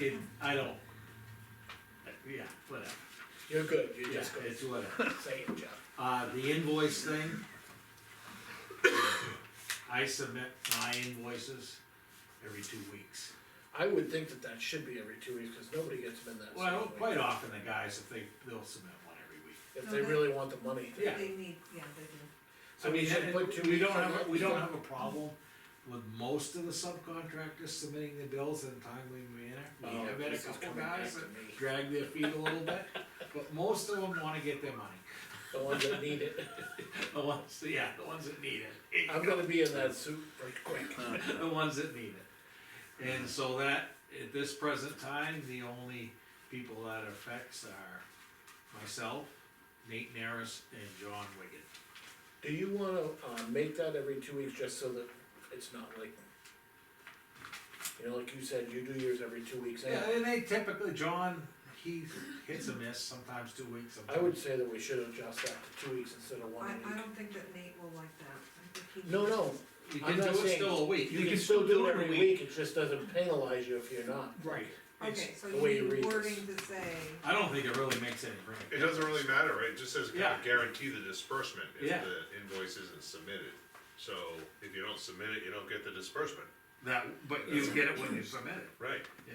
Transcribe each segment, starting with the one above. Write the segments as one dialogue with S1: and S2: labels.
S1: it, I don't. Yeah, whatever,
S2: You're good, you're
S1: yeah,
S2: just gonna
S1: it's whatever.
S2: say it, Jeff.
S1: Uh, the invoice thing. I submit my invoices every two weeks.
S2: I would think that that should be every two weeks, cause nobody gets them in that.
S1: Well,
S2: same
S1: quite
S2: week.
S1: often the guys, if they, they'll submit one every week.
S2: If they really want the money.
S1: Yeah.
S3: They need, yeah, they do.
S2: So we should put two
S1: We
S2: weeks
S1: don't
S2: on
S1: have,
S2: that.
S1: a- we don't have a problem with most of the subcontractors submitting the bills in a timely manner.
S2: Oh,
S1: We have had a
S2: this is
S1: couple
S2: coming back
S1: guys
S2: to
S1: that
S2: me.
S1: drag their feet a little bit, but most of them wanna get their money.
S2: The ones that need it.
S1: The ones, yeah, the ones that need it.
S2: I'm gonna be in that suit right quick.
S1: The ones that need it. And so that, at this present time, the only people that affects are myself, Nate Naris, and John Wigan.
S2: Do you wanna, uh, make that every two weeks, just so that it's not like. You know, like you said, you do yours every two weeks,
S1: Yeah,
S2: and
S1: and they typically, John, he hits a miss, sometimes two weeks,
S2: I would
S1: sometimes.
S2: say that we should adjust that to two weeks instead of one
S3: I, I
S2: week.
S3: don't think that Nate will like that, I think he.
S2: No, no,
S1: You
S2: I'm
S1: can
S2: not
S1: do it
S2: saying-
S1: still a week.
S2: you can still do it every week, it just doesn't penalize you if you're not.
S1: Right. It's-
S3: Okay, so
S2: the way
S3: you
S2: you read
S3: need
S2: this.
S3: wording to say,
S1: I don't think it really makes any
S4: It
S1: difference.
S4: doesn't really matter, right, it just says kind
S1: Yeah.
S4: of guarantee the disbursement if
S1: Yeah.
S4: the invoice isn't submitted. So if you don't submit it, you don't get the disbursement,
S1: That, but you get it when you submit it.
S4: right?
S1: Yeah.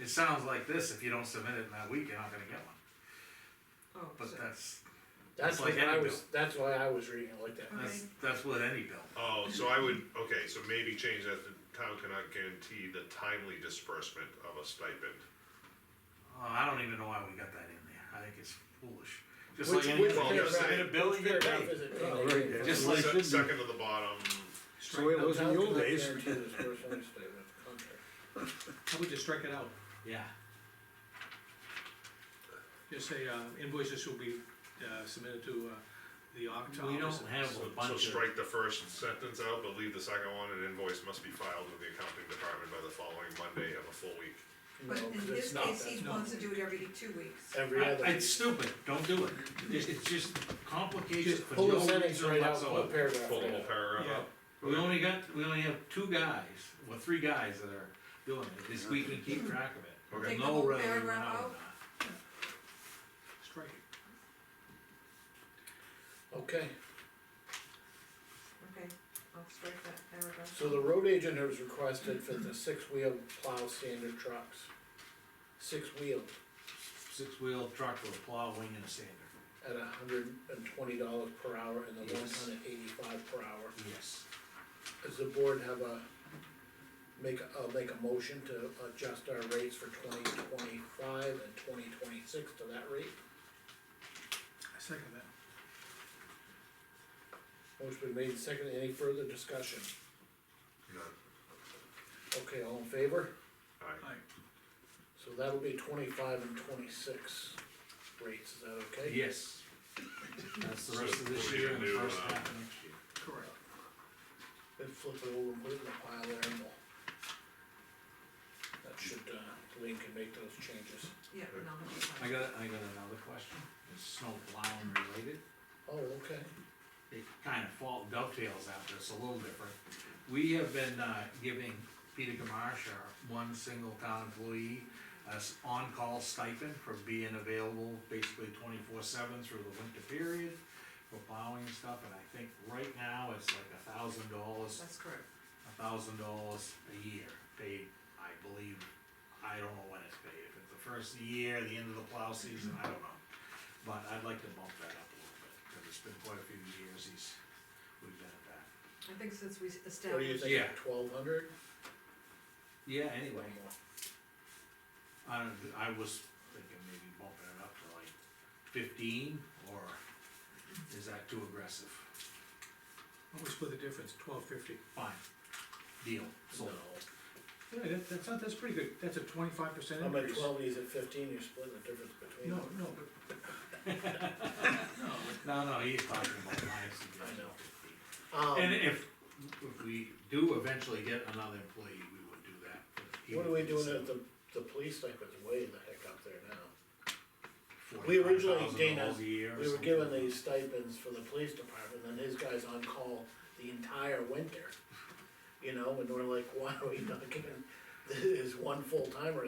S1: It sounds like this, if you don't submit it in that week, you're not gonna get one,
S3: oh,
S1: but
S3: so-
S1: that's,
S2: That's
S1: It's
S2: what
S1: like
S2: I
S1: any
S2: was, that's why I was reading it like that.
S1: that's, that's with any bill.
S4: Oh, so I would, okay, so maybe change that to town cannot guarantee the timely disbursement of a stipend.
S1: Oh, I don't even know why we got that in there, I think it's foolish. Just
S2: Which-
S1: like
S2: which
S1: any,
S4: Well,
S1: you
S4: you're
S1: submit a
S4: right.
S1: bill, you
S2: Fair
S1: get
S2: enough,
S1: paid.
S2: is it?
S5: Oh, right, yeah.
S1: Just
S5: Well,
S1: like-
S4: Se- Second to the bottom,
S5: That's the way it was in the old days.
S2: Guarantee the disbursement of statement of contract.
S5: How about you strike it out?
S1: Yeah,
S5: Just say uh, invoices will be uh, submitted to uh, the October.
S1: we don't have
S4: so
S1: a
S4: so
S1: bunch of,
S4: strike the first sentence out, but leave the second one, an invoice must be filed with the accounting department by the following Monday of a full week.
S3: But
S2: No,
S3: in
S2: 'cause
S3: his
S2: it's not
S3: case,
S2: that.
S3: he
S5: no.
S3: wants to do it every two weeks.
S2: Every other.
S1: I- it's stupid, don't do it, it's, it's just complications
S2: Just
S1: for
S2: pull
S1: no
S2: the sentence
S1: reason
S2: right out, pull a
S1: whatsoever.
S2: paragraph
S4: Full
S2: right
S4: whole
S2: out.
S4: paragraph
S5: Yeah.
S4: up.
S1: We only got, we only have two guys, well, three guys that are doing it, this we can keep track of it.
S4: Okay.
S3: Take the
S1: We'll know
S3: whole
S1: whether we went
S3: paragraph
S1: out or
S3: out?
S1: not.
S5: Strike it.
S2: Okay,
S3: Okay, I'll strike that paragraph.
S2: so the road agent has requested for the six-wheel plow standard trucks. Six-wheel
S1: Six-wheel truck with a plow, wing and a sander,
S2: at a hundred and twenty dollars per hour and the one
S1: Yes.
S2: ton at eighty-five per hour.
S1: yes.
S2: Does the board have a, make, a- uh, make a motion to adjust our rates for twenty twenty-five and twenty twenty-six to that rate?
S5: I second that.
S2: Motion been made, and seconded, any further discussion?
S4: None.
S2: Okay, all in favor?
S4: Aye.
S5: Aye.
S2: So that'll be twenty-five and twenty-six rates, is that okay?
S1: Yes. That's the rest of this
S4: So,
S1: year and the
S4: we can do,
S1: first
S4: uh,
S1: half of next year.
S5: Correct.
S2: Then flip it over and put it in the pile there and we'll. That should, uh, Lean can make those changes.
S3: Yeah, no, that's fine.
S1: I got, I got another question, it's snow plowing related,
S2: Oh, okay,
S1: it kind of fall dovetails after, it's a little different. We have been, uh, giving Peter Gamache, our one single town employee, a s- on-call stipend for being available basically twenty-four seven through the winter period for plowing and stuff, and I think right now it's like a thousand dollars
S3: That's correct.
S1: a thousand dollars a year, paid, I believe, I don't know when it's paid, if it's the first year, the end of the plow season, I don't know. But I'd like to bump that up a little bit, cause it's been quite a few years he's, we've been at that.
S3: I think since we
S2: what do you
S3: established,
S2: think,
S1: Yeah.
S2: twelve hundred?
S1: Yeah, anyway, I don't, I was thinking maybe bumping it up to like fifteen, or is that too aggressive?
S5: What was for the difference, twelve fifty?
S1: Fine, deal,
S2: No,
S1: sold.
S5: Yeah, that, that's not, that's pretty good, that's a twenty-five percent
S2: I'm at
S5: increase.
S2: twelve, he's at fifteen, you're splitting the difference between
S5: No,
S2: them.
S5: no, but. No,
S1: No, no, he's talking about my suggestion.
S2: I know.
S1: fifteen. And
S2: Um,
S1: if, if we do eventually get another employee, we would do that. but he
S2: what are
S1: would
S2: we
S1: be
S2: doing
S1: set
S2: at the, the police stipend's way the heck up there now?
S1: for
S2: we originally,
S1: $45,000
S2: Dana,
S1: a year or
S2: We were
S1: something.
S2: given these stipends for the police department, and his guy's on call the entire winter. You know, and we're like, why are we not giving is one full timer,